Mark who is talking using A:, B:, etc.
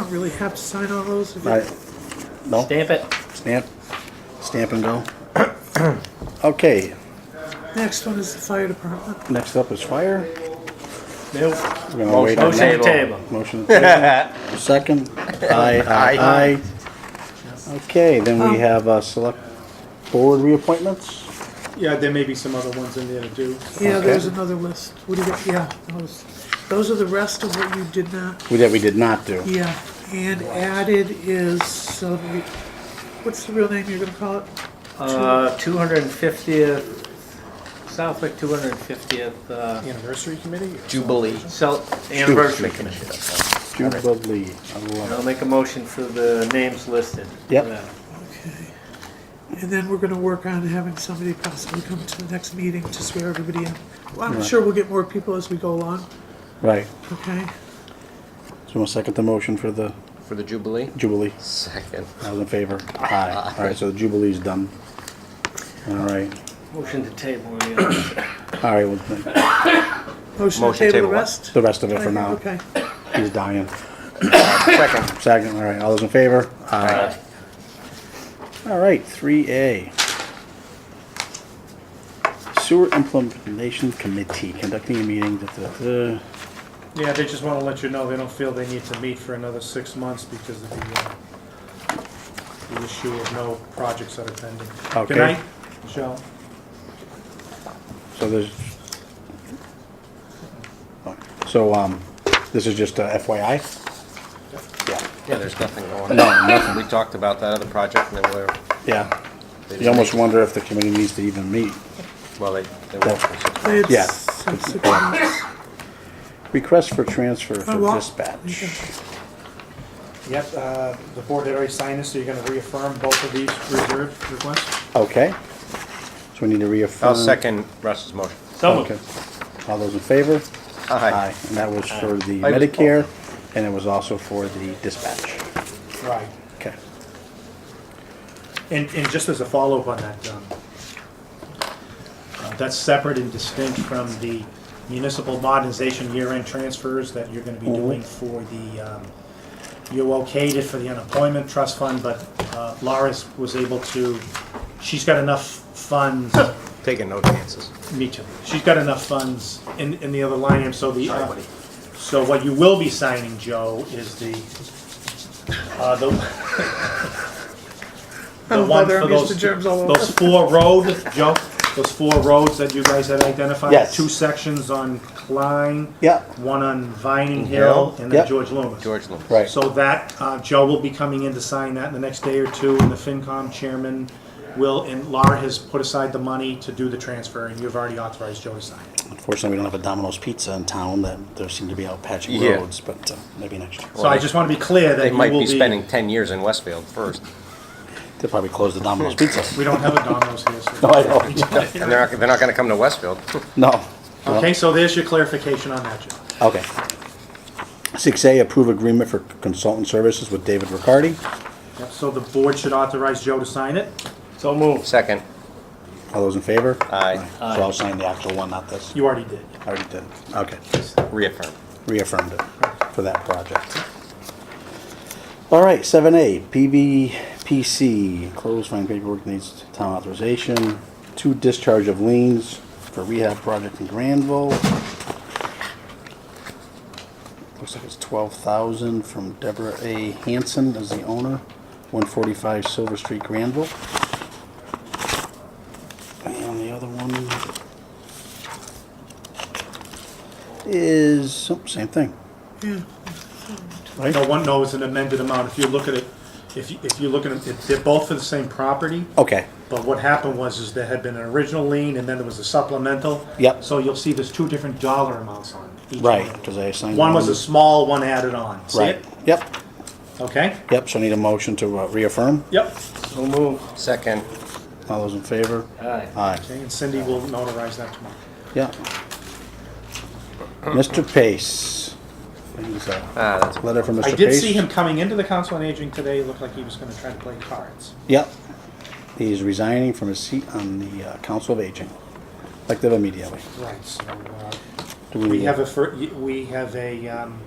A: not really have to sign all those? if
B: I,
A: it-
B: no,
C: Stamp it.
B: stamp, stamp and go. Okay,
A: Next one is the fire department.
B: next up is fire.
C: Nope.
B: We're gonna wait on
C: Motion
B: that.
C: to table.
B: Motion. to table. Second, aye, aye, aye. Okay, then we have, uh, select board reappointments.
D: Yeah, there may be some other ones in there too.
A: Yeah,
B: Okay.
A: there's another list. What do you got? Yeah, those, those are the rest of what you did not.
B: We- That we did not do.
A: Yeah, and added is, uh, re- what's the real name you're gonna call it?
C: Uh, 250th, Southwick 250th uh,
D: Anniversary committee?
E: Jubilee.
C: Cel- Anniversary Commission.
B: Jubilee. I love
C: And
B: it.
C: I'll make a motion for the names listed.
B: Yep.
C: Yeah.
A: And then we're gonna work on having somebody possibly come to the next meeting to swear everybody in. Well, I'm sure we'll get more people as we go along,
B: Right.
A: okay?
B: So we'll second the motion for the
E: For the Jubilee?
B: Jubilee.
E: Second.
B: I was in favor. Aye. All right, so the Jubilee's done. All right.
C: Motion to table. yeah.
B: All right, well,
A: Motion to
E: Motion
A: table
E: table
A: the
E: one.
A: rest?
B: the rest of it for now.
A: Okay,
B: He's dying.
E: Second.
B: Second, all right, all those in favor?
E: Aye.
B: All right, three A. Sewer Implementation Committee conducting a meeting, uh, da, da, da.
D: Yeah, they just wanna let you know they don't feel they need to meet for another six months because of the, uh, the issue of no projects that are pending.
B: Okay.
D: Good night, Michelle.
B: so there's. So, um, this is just a FYI? Yeah,
E: Yeah, there's nothing going on.
B: No, nothing.
E: We talked about that other project and then we're,
B: yeah.
E: They
B: You almost wonder if the committee needs to even meet.
E: well, they, they won't.
B: Yeah.
A: it's, it's six months.
B: Request for transfer
A: Oh,
B: for
A: well.
B: dispatch.
D: Yep, uh, the board had already signed this, so you're gonna reaffirm both of these reserve requests?
B: Okay. So we need to reaffirm.
E: I'll second Russ's motion.
C: So
B: Okay.
C: moved.
B: All those in favor?
E: Aye.
B: And that was for the
E: Aye.
B: Medicare, and it was also for the dispatch.
D: Right.
B: Okay.
D: And, and just as a follow-up on that, um, uh, that's separate and distinct from the municipal modernization year-end transfers that you're gonna be doing for the, um, you okayed it for the unemployment trust fund, but uh, Laura's was able to, she's got enough funds,
E: Taking no chances.
D: me too, she's got enough funds in, in the other line, item, so the,
E: Sorry,
D: uh,
E: buddy.
D: so what you will be signing, Joe, is the, uh, the, the
A: Oh,
D: one
A: bother,
D: for
A: I'm used
D: those,
A: to germs all over.
D: those four road, Joe, those four roads that you guys had identified?
B: Yes.
D: Two sections on Klein.
B: Yeah.
D: One on Vining Hill and
B: Yep.
D: then George Loomis.
E: George Loomis.
B: Right.
D: So that, uh, Joe will be coming in to sign that in the next day or two, and the FinCom chairman will, and Laura has put aside the money to do the transfer, and you've already authorized Joe to sign it.
B: Unfortunately, we don't have a Domino's Pizza in town, that there seem to be out patching
E: Yeah.
B: roads, but uh, maybe next year.
D: So I just want to be clear that
E: They
D: you
E: might
D: will
E: be
D: be.
E: spending 10 years in Westfield first.
B: They'll probably close the Domino's Pizza.
D: We don't have a Domino's here, so.
B: No, I don't.
E: And they're not, they're not gonna come to Westfield.
B: No.
D: Okay, so there's your clarification on that, Joe.
B: Okay. Six A, approve agreement for consultant services with David Riccardi.
D: Yep, So the board should authorize Joe to sign it?
C: So moved.
E: Second.
B: All those in favor?
E: Aye.
B: So I'll sign the actual one, not this.
D: You already did.
B: I already did. Okay.
E: Reaffirm.
B: reaffirmed it for that project. All right, seven A, PVPC, closed fine paperwork needs town authorization, two discharge of liens for rehab project in Granville. Looks like it's twelve thousand from Deborah A. Hanson as the owner, one forty-five Silver Street, Granville. And the other one, is, oh, same thing.
A: Yeah.
B: Right?
D: No one knows an amended amount. If you look at it, if you, if you look at it, they're both for the same property.
B: Okay,
D: But what happened was, is there had been an original lien, and then there was a supplemental.
B: Yep.
D: So you'll see there's two different dollar amounts on each one.
B: right, because I assigned.
D: One was a small, one added on. See
B: Right,
D: it?
B: yep,
D: Okay?
B: yep, so I need a motion to uh, reaffirm.
D: Yep.
C: So moved.
E: Second.
B: All those in favor?
C: Aye.
B: Aye,
D: Okay, and Cindy will notarize that tomorrow.
B: yeah. Mr. Pace. Here's a
E: Ah, that's
B: Letter from Mr.
D: I
B: Pace.
D: did see him coming into the Council on Aging today. It looked like he was gonna try to play cards.
B: Yep. He's resigning from his seat on the uh, Council of Aging, effective immediately.
D: Right, so, uh,
B: Do
D: We have a, fir- y- we have a um,